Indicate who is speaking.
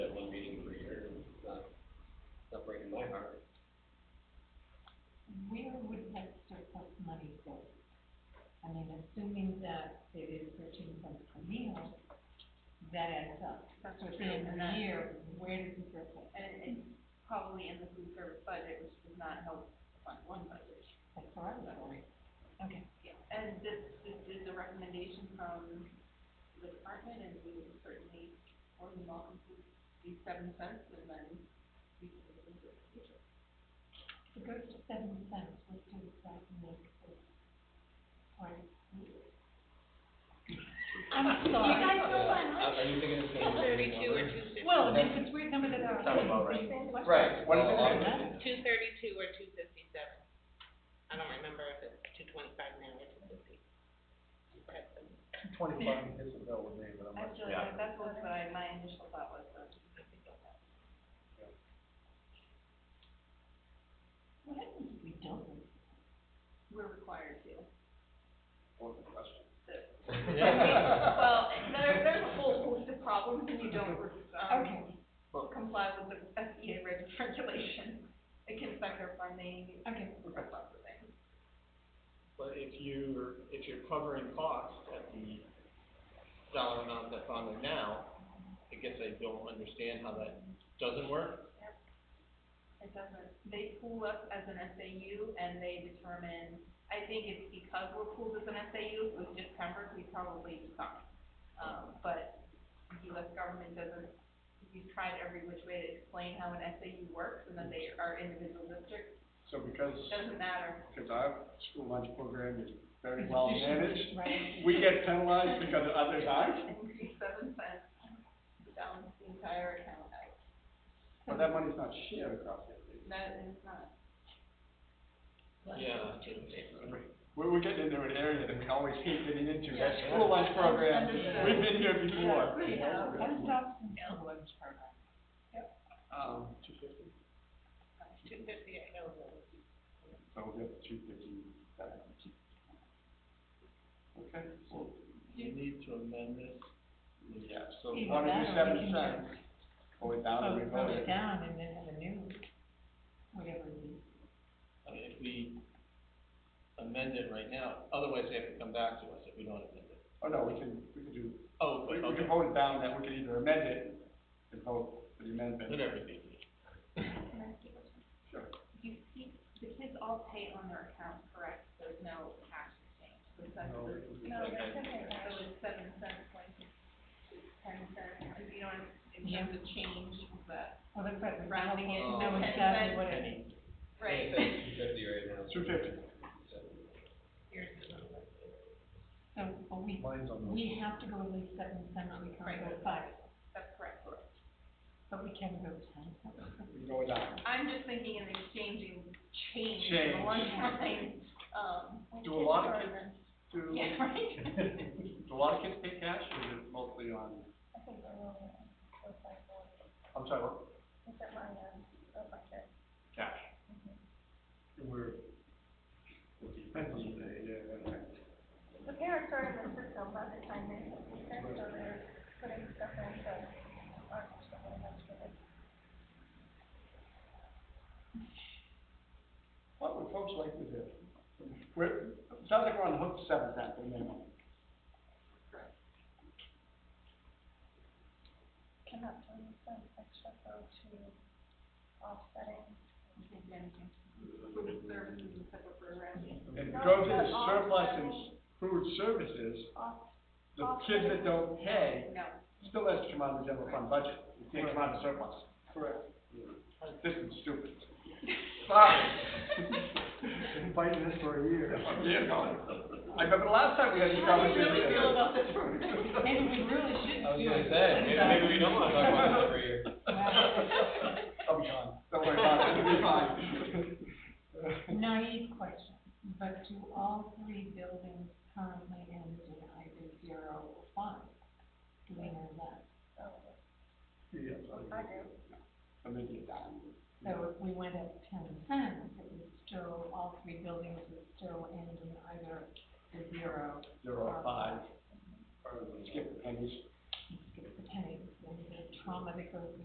Speaker 1: there is thirteen cents per meal, that adds up.
Speaker 2: That's
Speaker 1: So
Speaker 2: true,
Speaker 1: at the end of
Speaker 2: and
Speaker 1: the
Speaker 2: that,
Speaker 1: year, where does the surplus?
Speaker 2: and it's probably in the food service budget, which does not help Fund One budget.
Speaker 1: That's what I was wondering. Okay.
Speaker 2: Yeah, and this, this is a recommendation from the department, and we would certainly, more than welcome to these seven cents, and then we can look into it in the future.
Speaker 1: So go to seven cents, uh, what does that make for? Pardon? I'm
Speaker 3: You
Speaker 1: sorry.
Speaker 3: guys know what?
Speaker 4: Yeah, Uh, Are are you thinking it's gonna be?
Speaker 5: Thirty-two or two fifty.
Speaker 1: Well, if it's weird number that are.
Speaker 3: Sounds about right.
Speaker 4: Right.
Speaker 3: What is it?
Speaker 5: Two thirty-two or two fifty-seven. I don't remember if it's two twenty-five now or two fifty.
Speaker 3: Twenty-five is a bill with me, but I'm
Speaker 2: I
Speaker 3: not
Speaker 2: feel
Speaker 3: sure.
Speaker 2: like that's what my, my initial thought was, so.
Speaker 1: What happens if we don't?
Speaker 2: We're required to.
Speaker 3: What was the question?
Speaker 2: that- Well, there, there's a whole host of problems when you don't,
Speaker 1: Okay,
Speaker 2: um, comply with the FDA reg- regulations. It can affect our funding,
Speaker 1: okay.
Speaker 2: lots of things.
Speaker 6: But if you're, if you're covering costs at the dollar amount that's on there now, I guess I don't understand how that doesn't work.
Speaker 2: It doesn't, they pool us as an SAU and they determine, I think it's because we're pooled as an SAU, if it was just Pembroke, we probably suck. Um, but the US government doesn't, we've tried every which way to explain how an SAU works and that they are individual districts,
Speaker 3: So because,
Speaker 2: doesn't matter.
Speaker 3: because our school lunch program is very well managed,
Speaker 1: Right.
Speaker 3: we get penalized because others aren't,
Speaker 2: Increase seven cents, balance the entire account out.
Speaker 3: but that money's not shared across everything.
Speaker 2: That is not,
Speaker 6: Yeah.
Speaker 3: We're, we're getting into an area that we always hate getting into, that
Speaker 1: Yeah.
Speaker 3: school lunch program,
Speaker 2: Understood.
Speaker 3: we've been here before.
Speaker 2: We have.
Speaker 1: What stops in the lunch program?
Speaker 3: Um, two fifty,
Speaker 5: Two fifty, I know.
Speaker 3: so we'll get two fifty. Okay, well,
Speaker 6: You need to amend this.
Speaker 3: yeah, so
Speaker 1: Either
Speaker 3: one
Speaker 1: that or we
Speaker 3: of you seven
Speaker 1: can
Speaker 3: cents, go it down
Speaker 1: Oh,
Speaker 3: and we vote
Speaker 1: vote it
Speaker 3: it.
Speaker 1: down and then have a new, whatever it is.
Speaker 6: I mean, if we amend it right now, otherwise they have to come back to us if we don't amend it.
Speaker 3: Oh, no, we can, we can do,
Speaker 6: Oh,
Speaker 3: we,
Speaker 6: but,
Speaker 3: we
Speaker 6: okay,
Speaker 3: can vote it down, that we can either amend it and vote for the amendment.
Speaker 6: whatever it is.
Speaker 2: can I ask you a question?
Speaker 3: Sure.
Speaker 2: You, you, the kids all pay on their account, correct? There's no cash exchange. So it's like-
Speaker 3: No,
Speaker 2: so-
Speaker 3: it's-
Speaker 2: No,
Speaker 6: it's
Speaker 2: that's
Speaker 6: like-
Speaker 2: okay. So it's seven cents, like, ten cents, and you know, in
Speaker 1: Yeah.
Speaker 2: terms of change, but.
Speaker 1: Well, Oh, that's right, we're
Speaker 2: Rounding it
Speaker 1: supposed to know
Speaker 6: to
Speaker 2: ten
Speaker 1: exactly
Speaker 2: cents.
Speaker 1: what it is.
Speaker 2: Right.
Speaker 4: Two fifty right now.
Speaker 3: Two fifty.
Speaker 1: So, but we,
Speaker 3: Mine's on the-
Speaker 1: we have to go at least seven cents, we can't go
Speaker 2: Right.
Speaker 1: five,
Speaker 2: That's correct.
Speaker 1: but we can go ten.
Speaker 3: we can go it down.
Speaker 2: I'm just thinking in exchanging change in
Speaker 3: Change.
Speaker 2: the one time, um. when
Speaker 3: Do a
Speaker 2: kids
Speaker 3: lot of
Speaker 2: are
Speaker 3: kids
Speaker 2: in-
Speaker 3: Do,
Speaker 2: Yeah, right?
Speaker 3: do a lot of kids pay cash, or is it mostly on? I think they're mostly on, I'm sorry, what? Cash. And we're. Depends on the day, yeah, that's right.
Speaker 7: The parents are in the system by the time they, so they're putting stuff in, so aren't so much for this.
Speaker 3: What would folks like to do? We're, it sounds like we're on the hook for seven cents at minimum.
Speaker 7: Cannot turn this on extra though to offsetting.
Speaker 2: Food services and separate programs.
Speaker 3: And
Speaker 7: No,
Speaker 3: go to
Speaker 7: but
Speaker 3: the
Speaker 7: all
Speaker 3: surplus
Speaker 7: seven-
Speaker 3: and food services,
Speaker 7: Off,
Speaker 3: the
Speaker 7: all
Speaker 3: kids that
Speaker 7: seven.
Speaker 3: don't pay,
Speaker 2: No,
Speaker 3: still has to come out of the general fund budget, it can't come out of surplus. Correct. This is stupid. Sorry. Been fighting this for a year. A year ago. I remember the last time we had this
Speaker 2: How do you
Speaker 3: conversation.
Speaker 2: really feel about this program?
Speaker 1: Maybe we really shouldn't do it.
Speaker 4: I was gonna say, maybe, maybe we don't wanna talk about that for a year.
Speaker 3: I'll be gone, Oh, don't worry about it, it'll be fine.
Speaker 1: Naive question, but do all three buildings currently end in either zero or five? Do we know that?
Speaker 3: Yes,
Speaker 7: I do.
Speaker 3: I'm making it down.
Speaker 1: So if we went up ten cents, it would still, all three buildings would still end in either the zero
Speaker 3: Zero or five, or skip the pennies.
Speaker 1: skip the pennies, and the trauma that goes